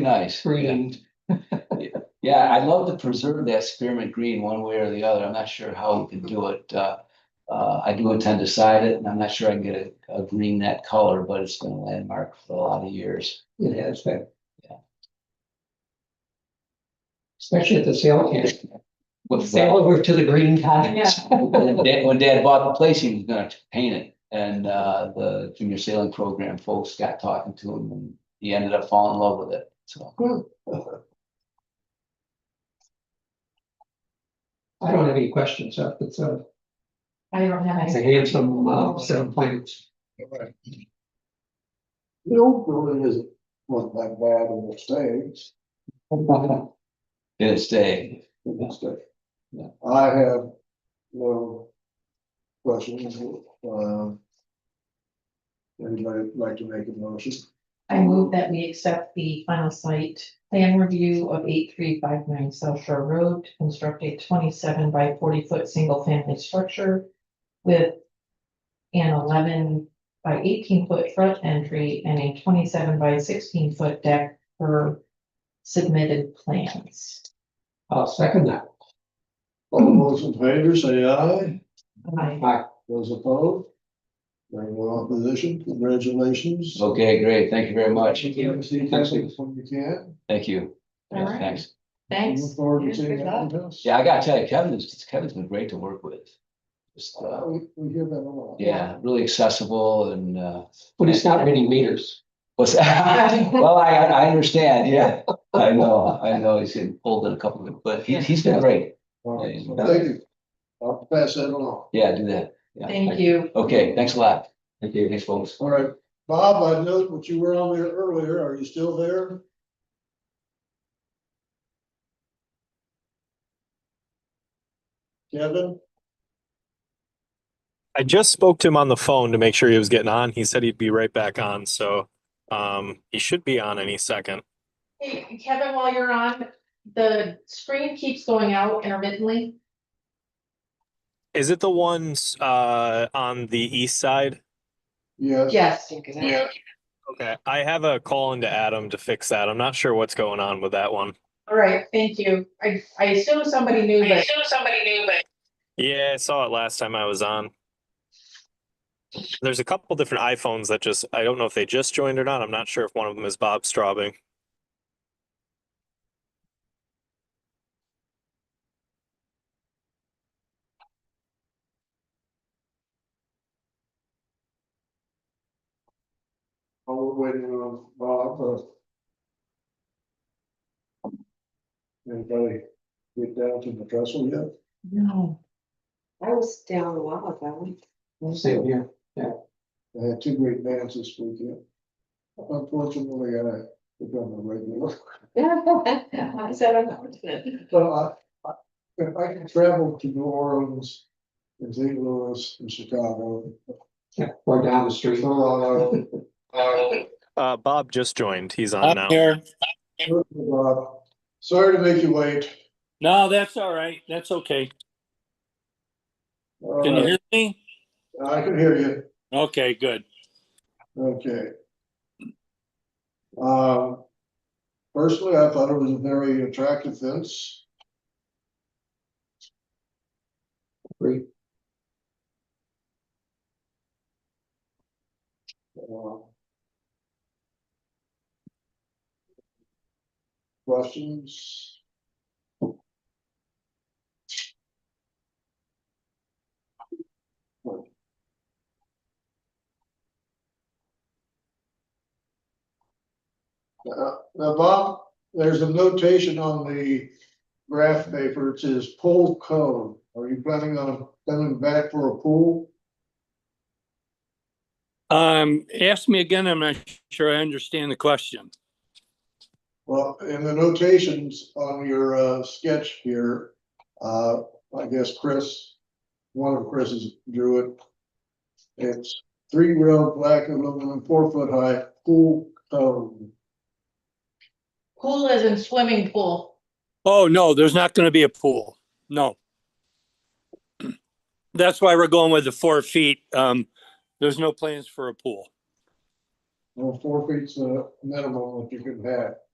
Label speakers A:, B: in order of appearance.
A: nice.
B: green.
A: Yeah, I'd love to preserve that spearmint green one way or the other. I'm not sure how we can do it. Uh, uh, I do intend to side it and I'm not sure I can get a, a green that color, but it's been a landmark for a lot of years.
B: It has that.
A: Yeah.
B: Especially at the sale camp.
A: With- uh,
B: Sail over to the green cottage.
A: When Dad- when Dad bought the place, he was gonna paint it. And, uh, the junior sailing program folks got talking to him and he ended up falling in love with it. So,
B: I don't have any questions up, it's a,
C: I don't have
B: it's
C: any.
B: a handsome, uh, set of plans.
D: The old building isn't, wasn't that bad of a stage,
A: to this day,
D: it's just-
A: Yeah.
D: I have no questions, um. Anybody like to make a motion?
C: I move that we accept the final site plan review of eight three five nine South Shore Road to construct a twenty-seven by forty foot single family structure with an eleven by eighteen foot front entry and a twenty-seven by sixteen foot deck per submitted plans.
B: I'll second that.
D: All those in favor, say aye,
C: I
D: those opposed? There are no opposition, congratulations.
A: okay, great. Thank you very much.
D: See you when you can.
A: Thank you.
C: All right.
A: Thanks.
C: Thanks.
D: Look forward to seeing
C: Good luck.
D: you.
A: Yeah, I gotta tell you, Kevin is, Kevin's been great to work with. Just,
D: Uh,
A: uh,
D: We, we hear that a lot.
A: yeah, really accessible and, uh,
B: But it's not reading meters.
A: was, well, I, I understand, yeah. I know, I know, he's getting pulled in a couple of, them, but he, he's been great.
D: All right, so Thank you. I'll pass that along.
A: Yeah, do that. Yeah.
C: Thank you.
A: Okay, thanks a lot. Thank you. Thanks, folks.
D: All right, Bob, I noticed what you were on there earlier, are you still there? Kevin,
E: I just spoke to him on the phone to make sure he was getting on. He said he'd be right back on, so um, he should be on any second.
C: Hey, Kevin, while you're on, the screen keeps going out intermittently.
E: Is it the ones uh, on the east side?
D: yes,
C: Yes.
E: Okay, I have a call into Adam to fix that. I'm not sure what's going on with that one.
C: All right, thank you. I, I assume somebody knew, but
E: Yeah, I saw it last time I was on. There's a couple different iPhones that just, I don't know if they just joined or not. I'm not sure if one of them is Bob Straubing.
D: while we're waiting on Bob, uh. Anybody get down to the trestle yet?
C: no.
F: I was down a while ago.
B: Same here.
D: I had two great bands this weekend. Unfortunately, I become a regular.
F: I said unfortunate.
D: Well, I, I, if I can travel to New Orleans and St. Louis and Chicago.
B: Yeah, or down the street.
D: Toronto,
E: Uh, Bob just joined. He's on now.
G: I'm here.
D: uh, Sorry to make you wait.
G: No, that's all right. That's okay.
D: All
G: Can you
D: right,
G: hear me?
D: I can hear you.
G: Okay, good.
D: Okay. Um, personally, I thought it was a very attractive fence.
B: Agree.
D: Uh, Questions? Uh, Now, Bob, there's a notation on the graph paper, it says pool cone. Are you planning on coming back for a pool?
G: Um, ask me again. I'm not sure I understand the question.
D: Well, in the notations on your uh, sketch here, uh, I guess Chris, one of Chris's drew it. It's three rail black aluminum, four foot high pool cone.
C: Pool is in swimming pool.
G: Oh, no, there's not gonna be a pool. No. That's why we're going with the four feet. Um, there's no plans for a pool.
D: Well, four feet's the minimum that you can have.